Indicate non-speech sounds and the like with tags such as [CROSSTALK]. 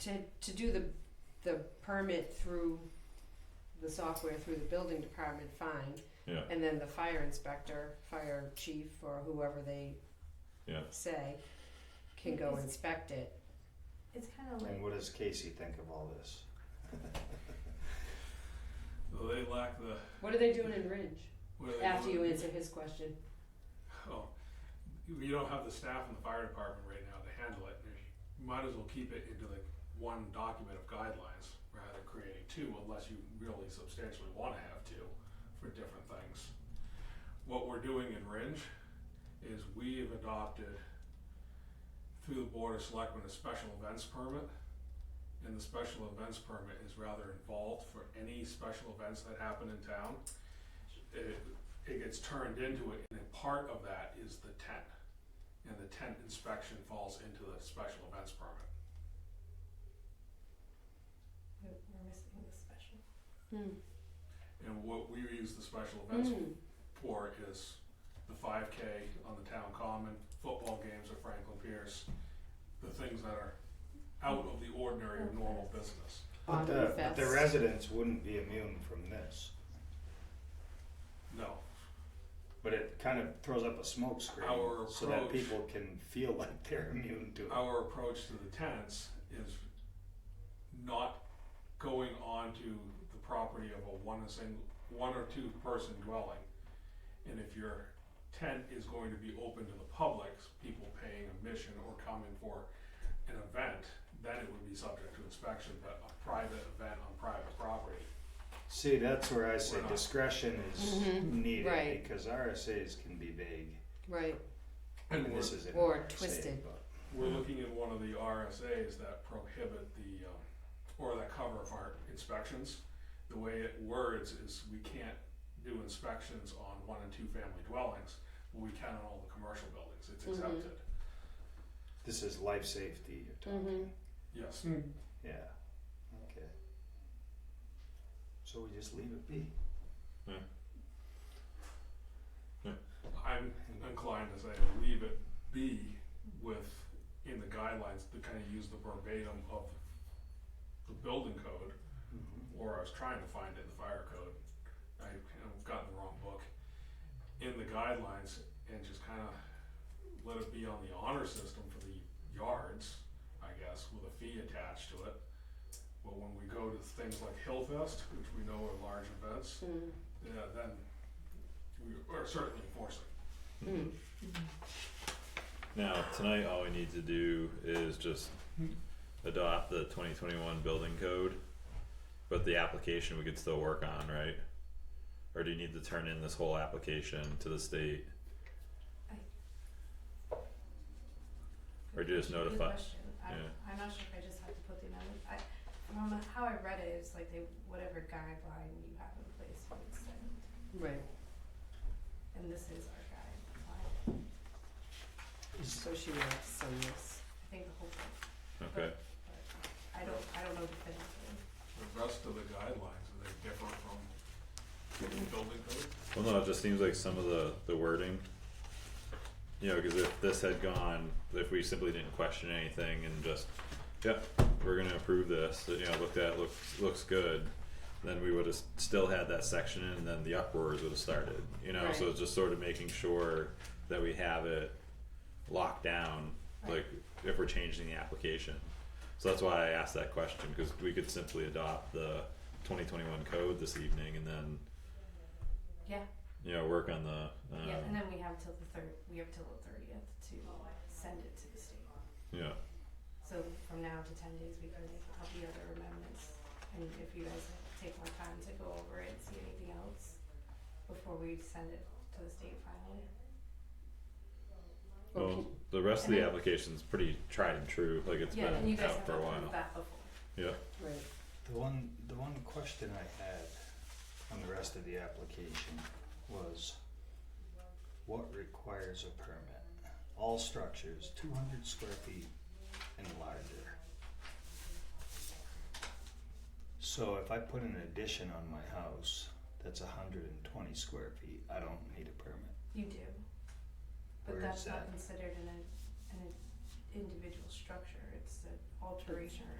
to, to do the, the permit through the software, through the building department, fine. Yeah. And then the fire inspector, fire chief, or whoever they Yeah. say, can go inspect it. It's kind of And like what does Casey think of all this? Well, they lack the. What are they doing in Ridge? what do they After do? you answer his question. Oh, you- you don't have the staff in the fire department right now to handle it. You might as well keep it into like one document of guidelines rather than creating two, unless you really substantially want to have two for different things. What we're doing in Ringe is we have adopted through the Board of Selectmen a special events permit. And the special events permit is rather involved for any special events that happen in town. It- it gets turned into it, and a part of that is the tent. And the tent inspection falls into the special events permit. we're missing the special. And what we use the special events Mm. for is the five K on the town common, football games at Franklin Pierce, the things that are out of the ordinary of normal business. But Bottom the, but the fest. residents wouldn't be immune from this. No, But it kind of throws up a smoke screen Our so that approach- people can feel [LAUGHS] like they're immune to it. our approach to the tenants is not going onto the property of a one, a single, one or two person dwelling. And if your tent is going to be open to the public, people paying a mission or coming for an event, then it would be subject to inspection, but a private event on private property. See, that's where I say We're not- discretion is Mhm, needed right. because RSAs can be vague. Right, And And we're, this is an or RSA, twisted. but- we're looking at one of the RSAs that prohibit the, um, or that cover our inspections. The way it words is we can't do inspections on one and two family dwellings, but we can on all the commercial buildings, it's Mhm. accepted. This is life safety you're talking. Mhm. Yes, Yeah. Okay. So we just leave it be. I'm inclined to say leave it be with, in the guidelines, to kind of use the verbatim of the building code, or I was trying to find it in the fire code. I have gotten the wrong book in the guidelines and just kind of let it be on the honor system for the yards, I guess, with a fee attached to it. But when we go to things like Hillfest, which we know are large events, Mm. yeah, then we are certainly enforcing. Mm. Now, tonight, all we need to do is just adopt the twenty twenty-one building code. But the application we could still work on, right? Or do you need to turn in this whole application to the state? Or Good just question, good notify- question. I'm, yeah. I'm not sure if I just have to put the amendment, I, from how I read it, it's like they, whatever guideline you have in place would send, Right, and this is our guideline. so she wants some of this. I think the whole thing, Okay, I don't, I don't know definitively. The rest of the guidelines, are they different from the building code? well, no, it just seems like some of the, the wording. You know, cause if this had gone, if we simply didn't question anything and just, yep, we're gonna approve this, you know, looked at, looks, looks good. Then we would've s- still had that section in and then the uproars would've started, you know, so Right. it's just sort of making sure that we have it locked down, like if we're changing the application. So that's why I asked that question, cause we could simply adopt the twenty twenty-one code this evening and then Yeah, you know, work on the, um, yeah, and then we have till the third, we have till the thirtieth to send it to the state. yeah, So from now to ten days, we can make up the other amendments, and if you guys take more time to go over it, and see anything else before we send it to the state finally. well, Okay. the rest of the And then- application's pretty tried and true, like it's Yeah, and you been guys out have for a approved while, that before. yeah, Right, The one, the one question I had on the rest of the application was what requires a permit? All structures two hundred square feet and larger. So if I put an addition on my house that's hundred and twenty square feet, I don't need a permit. You do, but Where that's is not that? considered an, an individual structure, it's an alteration or